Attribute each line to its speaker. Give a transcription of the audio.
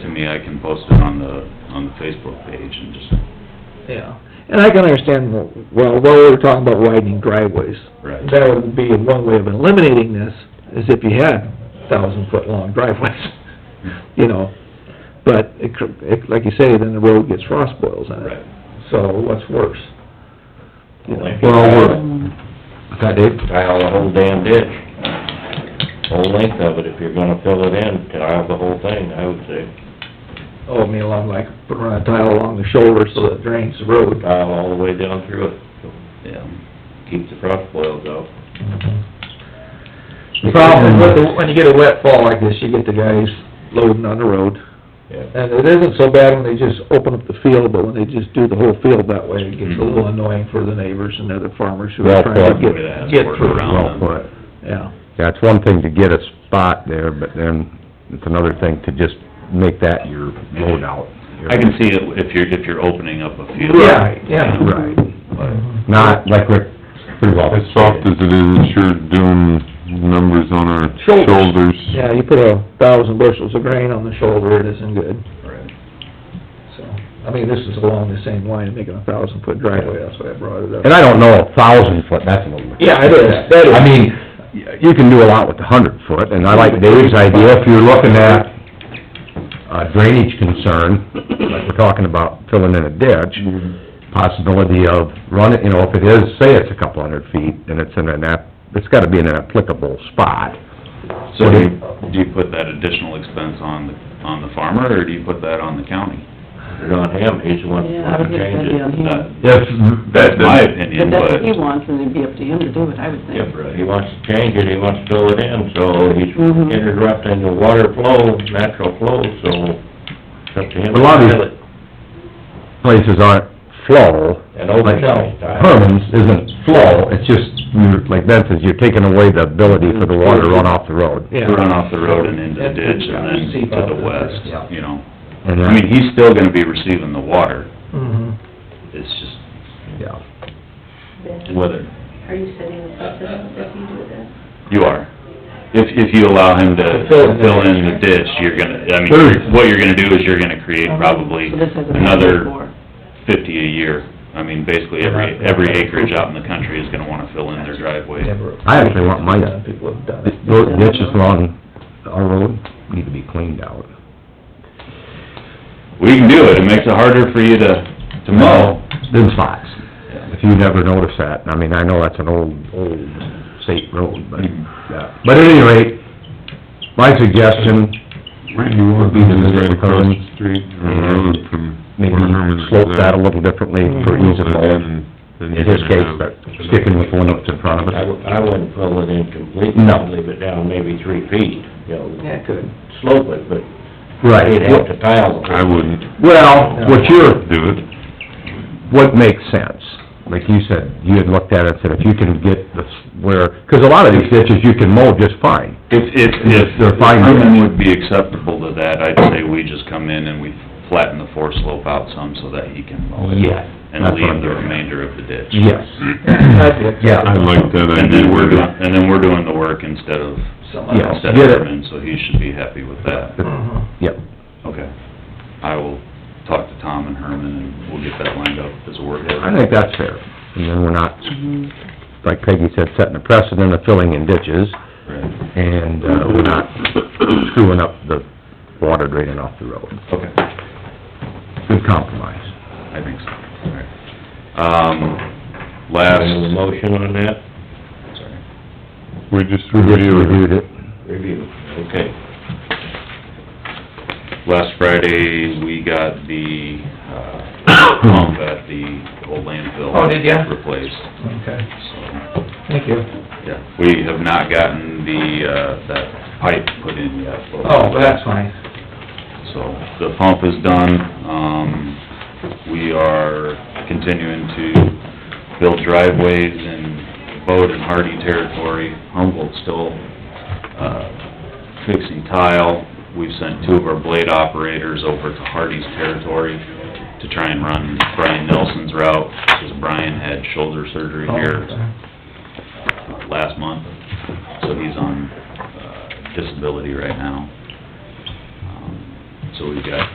Speaker 1: me, I can post it on the, on the Facebook page and just,
Speaker 2: Yeah, and I can understand, well, what we were talking about widening driveways.
Speaker 1: right.
Speaker 2: That would be one way of eliminating this, is if you had thousand-foot-long driveways, you know. But it, cr- it- like you say, then the road gets frost boils on it.
Speaker 1: Right.
Speaker 2: So what's worse? uh, You know,
Speaker 3: Well,
Speaker 2: Okay, Dave?
Speaker 3: we're tile the whole damn ditch, whole length of it, if you're gonna fill it in, tile the whole thing, I would say.
Speaker 2: Oh, I mean, along like, put around a tile along the shoulder so it drains the road.
Speaker 3: Tile all the way down through it, so
Speaker 1: Yeah.
Speaker 3: keep the frost boils out.
Speaker 2: The problem with, the- when you get a wet fall like this, you get the guys loading on the road.
Speaker 3: Yeah.
Speaker 2: And it isn't so bad when they just open up the field, but when they just do the whole field that way, it gets a little
Speaker 4: Mm-hmm.
Speaker 2: annoying for the neighbors and other farmers who are
Speaker 4: Well
Speaker 2: trying to
Speaker 4: put.
Speaker 2: get,
Speaker 1: Yeah,
Speaker 2: get
Speaker 1: work
Speaker 2: through.
Speaker 1: around.
Speaker 5: Um,
Speaker 4: Well put.
Speaker 2: Yeah,
Speaker 4: Yeah, it's one thing to get a spot there, but then it's another thing to just make that your load out.
Speaker 1: I can see it if you're, if you're opening up a field.
Speaker 2: Right, yeah.
Speaker 4: Right.
Speaker 1: But,
Speaker 4: Not like Rick, pretty well.
Speaker 5: As soft as it is, it's sure doing numbers on our
Speaker 2: Shoulders.
Speaker 5: shoulders.
Speaker 2: yeah, you put a thousand bushels of grain on the shoulder, it isn't good,
Speaker 1: right.
Speaker 2: so. I mean, this is along the same line, of making a thousand foot driveway, that's why I brought it up.
Speaker 4: And I don't know, a thousand foot, that's a little...
Speaker 2: Yeah, it is, that is.
Speaker 4: I mean, you can do a lot with a hundred foot, and I like Dave's idea, if you're looking at a drainage concern, like we're talking about filling in a ditch,
Speaker 2: Mm-hmm.
Speaker 4: possibility of running, you know, if it is, say it's a couple hundred feet, and it's in an app, it's gotta be in an applicable spot.
Speaker 1: So do you, do you put that additional expense on, the on the farmer, or do you put that on the county?
Speaker 3: Put it on him, he's the one who
Speaker 6: Yeah, I
Speaker 3: can
Speaker 6: would think that'd
Speaker 3: change
Speaker 6: be
Speaker 3: it.
Speaker 6: on
Speaker 2: Mm.
Speaker 1: That,
Speaker 6: him.
Speaker 4: If,
Speaker 1: that's my
Speaker 6: If
Speaker 1: opinion,
Speaker 6: that's
Speaker 1: but,
Speaker 6: what he wants, then it'd be up to him to do it, I would think.
Speaker 1: yeah,
Speaker 3: He
Speaker 1: right.
Speaker 3: wants to change it, he wants to fill it in, so he's
Speaker 6: Mhm.
Speaker 3: interrupting the water flow, natural flow, so it's up to him.
Speaker 4: A lot of
Speaker 3: to fill it.
Speaker 4: places aren't flow.
Speaker 3: And open
Speaker 4: like
Speaker 3: shelf style.
Speaker 4: Herman's isn't flow, it's just, you're- like Ben says, you're taking away the ability for the water to run off the road.
Speaker 2: Yeah.
Speaker 1: To run off the road and into the ditch and then to the
Speaker 2: Yeah.
Speaker 1: west, you know?
Speaker 4: And uh,
Speaker 1: I mean, he's still gonna be receiving the water,
Speaker 2: Mhm.
Speaker 1: it's just
Speaker 4: yeah.
Speaker 7: Ben,
Speaker 1: whether,
Speaker 7: are you setting a precedent if you do this?
Speaker 1: you are. If, if you allow him to
Speaker 2: Fill in the
Speaker 1: fill in the ditch, you're gonna, I
Speaker 4: Sure.
Speaker 1: mean, what you're gonna do is you're gonna create probably
Speaker 6: So this has a
Speaker 1: another
Speaker 6: before.
Speaker 1: fifty a year. I mean, basically every, every acreage out in the country is gonna wanna fill in their driveway.
Speaker 2: Never-
Speaker 4: I actually want my-
Speaker 2: People have done it.
Speaker 4: Those ditches along our road need to be cleaned out.
Speaker 1: We can do it, it makes it harder for you to, to mow.
Speaker 4: Them spots. If you never notice that, I mean, I know that's an old, old state road, but,
Speaker 5: Mm,
Speaker 4: yeah. But at any rate, my suggestion,
Speaker 5: Randy, you want to do this right across the street, or road from
Speaker 4: Mm-hmm. maybe
Speaker 5: where Herman's
Speaker 4: slope that
Speaker 5: at?
Speaker 4: a little differently for ease of mow. In his case, but sticking with one up in front of
Speaker 3: I,
Speaker 4: us.
Speaker 3: wou- I wouldn't fill it in completely,
Speaker 4: No.
Speaker 3: leave it down maybe three feet, you know,
Speaker 2: Yeah, it could.
Speaker 3: slope it, but
Speaker 4: Right.
Speaker 3: you'd have to tile
Speaker 5: I
Speaker 3: it.
Speaker 5: wouldn't
Speaker 4: Well, what you're,
Speaker 5: do it.
Speaker 4: what makes sense, like you said, you had looked at it and said, if you can get this where, 'cause a lot of these ditches you can mow just fine.
Speaker 1: If, if, if
Speaker 4: They're fine.
Speaker 1: Herman would be acceptable to that, I'd say we just come in and we flatten the four slope out some so that he can
Speaker 5: Oh,
Speaker 1: mow it.
Speaker 4: Yeah,
Speaker 1: And
Speaker 4: that's what I'm
Speaker 1: leave the
Speaker 4: getting at.
Speaker 1: remainder of the ditch.
Speaker 4: Yes.
Speaker 2: I'd look at it.
Speaker 4: Yeah.
Speaker 5: I like that
Speaker 1: And
Speaker 5: idea
Speaker 1: then we're doing,
Speaker 5: better.
Speaker 1: and then we're doing the work instead of,
Speaker 2: Something
Speaker 4: Yeah.
Speaker 2: else.
Speaker 1: instead
Speaker 4: get
Speaker 1: of
Speaker 4: it.
Speaker 1: Herman, so he should be happy with that.
Speaker 2: Mhm.
Speaker 4: Yep.
Speaker 1: Okay. I will talk to Tom and Herman and we'll get that lined up as a work.
Speaker 4: I think that's fair. And then we're not, like Peggy said, setting a precedent of filling in ditches,
Speaker 1: Right.
Speaker 4: and, uh, we're not screwing up the water draining off the road.
Speaker 1: Okay,
Speaker 4: Good compromise.
Speaker 1: I think so, all right. Um, last.
Speaker 3: Any motion on that?
Speaker 1: Sorry.
Speaker 5: We just
Speaker 4: We just
Speaker 5: reviewed
Speaker 4: reviewed it.
Speaker 3: Review, okay.
Speaker 1: last Friday, we got the, uh, pump at the old landfill.
Speaker 2: Oh, did ya?
Speaker 1: Replaced,
Speaker 2: Okay,
Speaker 1: so,
Speaker 2: thank you.
Speaker 1: yeah. We have not gotten the, uh, that pipe put in yet. but-
Speaker 2: Oh, that's fine.
Speaker 1: So, the pump is done, um, we are continuing to build driveways in Bode and Hardy territory. Humboldt's still, uh, fixing tile. We've sent two of our blade operators over to Hardy's territory to try and run Brian Nelson's route, because Brian had shoulder surgery
Speaker 2: Oh,
Speaker 1: here uh, last month, so he's on uh, disability right now. Um, So we've got